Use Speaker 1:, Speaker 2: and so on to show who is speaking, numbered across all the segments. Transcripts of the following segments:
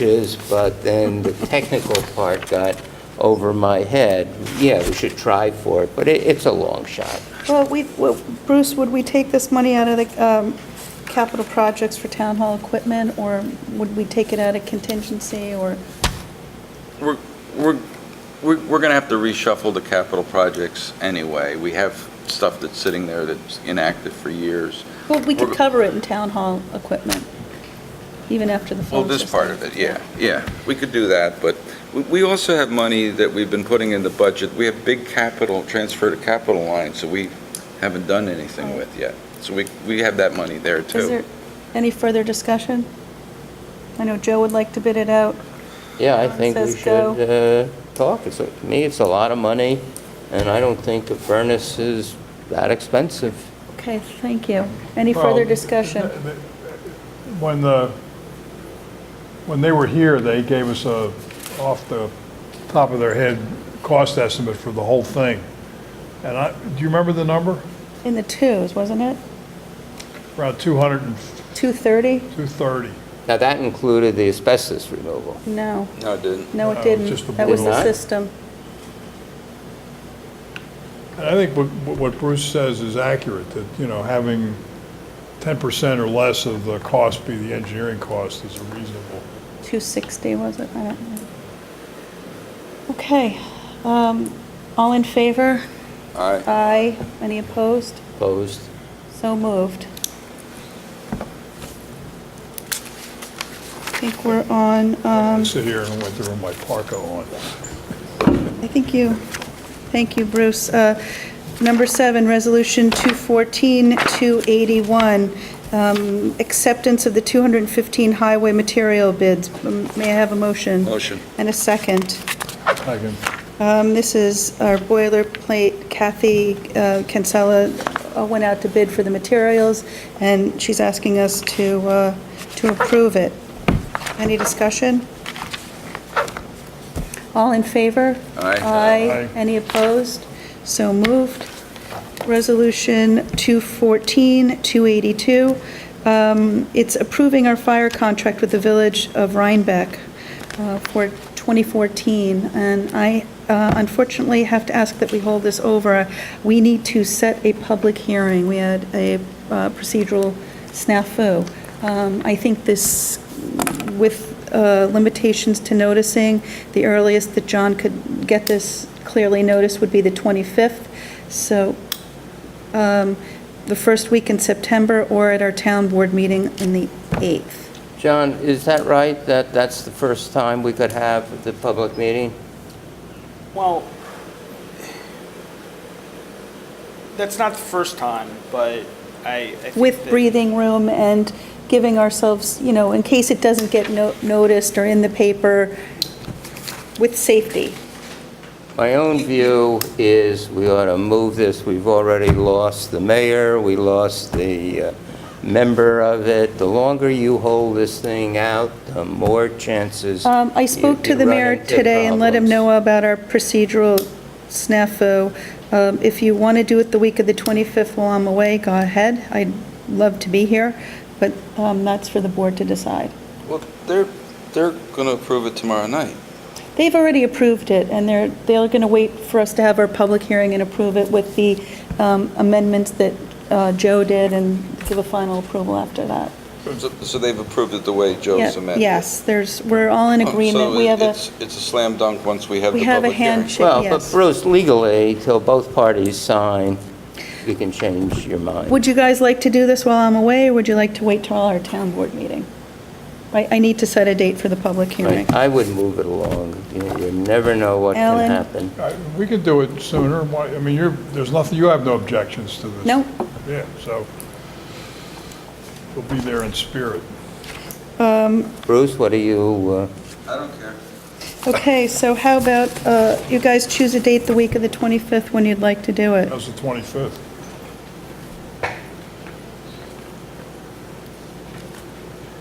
Speaker 1: is, but then the technical part got over my head. Yeah, we should try for it, but it, it's a long shot.
Speaker 2: Well, we, well, Bruce, would we take this money out of the um, capital projects for town hall equipment, or would we take it out of contingency, or,
Speaker 3: We're, we're, we're going to have to reshuffle the capital projects anyway. We have stuff that's sitting there that's inactive for years.
Speaker 2: well, we could
Speaker 3: We're-
Speaker 2: cover it in town hall equipment, even after the
Speaker 3: Well,
Speaker 2: phone
Speaker 3: this
Speaker 2: system.
Speaker 3: part of it, yeah, yeah. We could do that, but we- we also have money that we've been putting in the budget. We have big capital, transfer to capital line, so we haven't done anything with yet. So we, we have that money there
Speaker 2: Is
Speaker 3: too.
Speaker 2: there any further discussion? I know Joe would like to bid it out.
Speaker 1: Yeah, I think we
Speaker 2: Says go.
Speaker 1: should uh, talk. It's, a- to me, it's a lot of money, and I don't think the furnace is that expensive.
Speaker 2: Okay, thank you. Any further
Speaker 4: Well,
Speaker 2: discussion?
Speaker 4: th- th- When the, when they were here, they gave us a, off the top of their head, cost estimate for the whole thing. And I, do you remember the number?
Speaker 2: In the twos, wasn't it?
Speaker 4: Around 200 and
Speaker 2: 230?
Speaker 4: 230.
Speaker 1: Now, that included the asbestos removal.
Speaker 2: No,
Speaker 3: No, it didn't.
Speaker 2: no,
Speaker 4: No,
Speaker 2: it
Speaker 4: it's just the
Speaker 2: didn't. That was
Speaker 1: blue
Speaker 2: the
Speaker 1: line.
Speaker 2: system.
Speaker 4: And I think what, what Bruce says is accurate, that, you know, having 10% or less of the cost be the engineering cost is a reasonable.
Speaker 2: 260, was it? I don't know. Okay, um, all in favor?
Speaker 3: All right.
Speaker 2: Aye. Any opposed?
Speaker 1: Opposed?
Speaker 2: So moved. I think we're on,
Speaker 4: I
Speaker 2: um,
Speaker 4: sit here and went through my parka on.
Speaker 2: I think you, thank you, Bruce. Uh, Number seven, Resolution 214-281, um, acceptance of the 215 highway material bids. Um, May I have a motion?
Speaker 3: Motion.
Speaker 2: And a second.
Speaker 4: I can
Speaker 2: Um, This is our boilerplate. Kathy uh, Kinsella uh, went out to bid for the materials, and she's asking us to, uh, to approve it. Any discussion? All in favor?
Speaker 3: Aye.
Speaker 4: Aye.
Speaker 2: Any opposed? So moved. Resolution 214-282, um, it's approving our fire contract with the Village of Rhinebeck uh, for 2014, and I uh, unfortunately have to ask that we hold this over. We need to set a public hearing. We had a uh, procedural snafu. Um, I think this, with uh, limitations to noticing, the earliest that John could get this clearly noticed would be the 25th, so um, the first week in September or at our town board meeting in the 8th.
Speaker 1: John, is that right, that that's the first time we could have the public meeting?
Speaker 5: Well, that's not the first time, but I. I think
Speaker 2: With
Speaker 5: that-
Speaker 2: breathing room and giving ourselves, you know, in case it doesn't get no- noticed or in the paper, with safety.
Speaker 1: My own view is we ought to move this. We've already lost the mayor, we lost the uh, member of it. The longer you hold this thing out, the more chances.
Speaker 2: Um, I spoke
Speaker 1: you-
Speaker 2: to
Speaker 1: you
Speaker 2: the
Speaker 1: run
Speaker 2: mayor
Speaker 1: into
Speaker 2: today and let him
Speaker 1: problems.
Speaker 2: know about our procedural snafu. Um, If you want to do it the week of the 25th while I'm away, go ahead. I'd love to be here, but um, that's for the board to decide.
Speaker 3: Well, they're, they're going to approve it tomorrow night.
Speaker 2: They've already approved it, and they're, they're going to wait for us to have our public hearing and approve it with the um, amendments that uh, Joe did and give a final approval after that.
Speaker 3: So, so they've approved it the way
Speaker 2: Yeah,
Speaker 3: Joe's amended.
Speaker 2: Yes, there's, we're all in
Speaker 3: Oh, so
Speaker 2: agreement. We
Speaker 3: it-
Speaker 2: have a,
Speaker 3: it's- It's a slam dunk once we have
Speaker 2: we
Speaker 3: the
Speaker 2: have a
Speaker 3: public hearing.
Speaker 2: handshake,
Speaker 1: Well, but
Speaker 2: yes.
Speaker 1: Bruce, legally, till both parties sign, you can change your mind.
Speaker 2: Would you guys like to do this while I'm away, or would you like to wait till our town board meeting? I, I need to set a date for the public hearing.
Speaker 1: I I would move it along. You you never know what can
Speaker 2: Ellen?
Speaker 1: happen.
Speaker 4: Uh, We could do it sooner. Why- I mean, you're, there's nothing, you have no objections to this.
Speaker 2: No.
Speaker 4: Yeah, so we'll be there in spirit.
Speaker 1: Bruce, what do you, uh,
Speaker 3: I don't care.
Speaker 2: Okay, so how about, uh, you guys choose a date the week of the 25th when you'd like to do it?
Speaker 4: That's the 25th.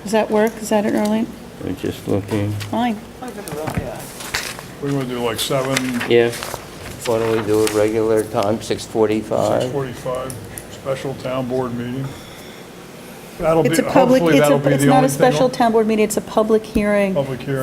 Speaker 2: Does that work? Is that it early?
Speaker 1: we're just looking,
Speaker 2: Fine.
Speaker 5: I think about- yeah.
Speaker 4: We want to do like 7,
Speaker 1: yeah, why don't we do it regular time, 6:45?
Speaker 4: 6:45, special town board meeting. That'll be,
Speaker 2: It's a public,
Speaker 4: hopefully
Speaker 2: it's
Speaker 4: that'll
Speaker 2: a,
Speaker 4: be
Speaker 2: it's
Speaker 4: the
Speaker 2: not a
Speaker 4: only
Speaker 2: special
Speaker 4: thing,
Speaker 2: town board meeting, it's a public hearing.
Speaker 4: public hearing.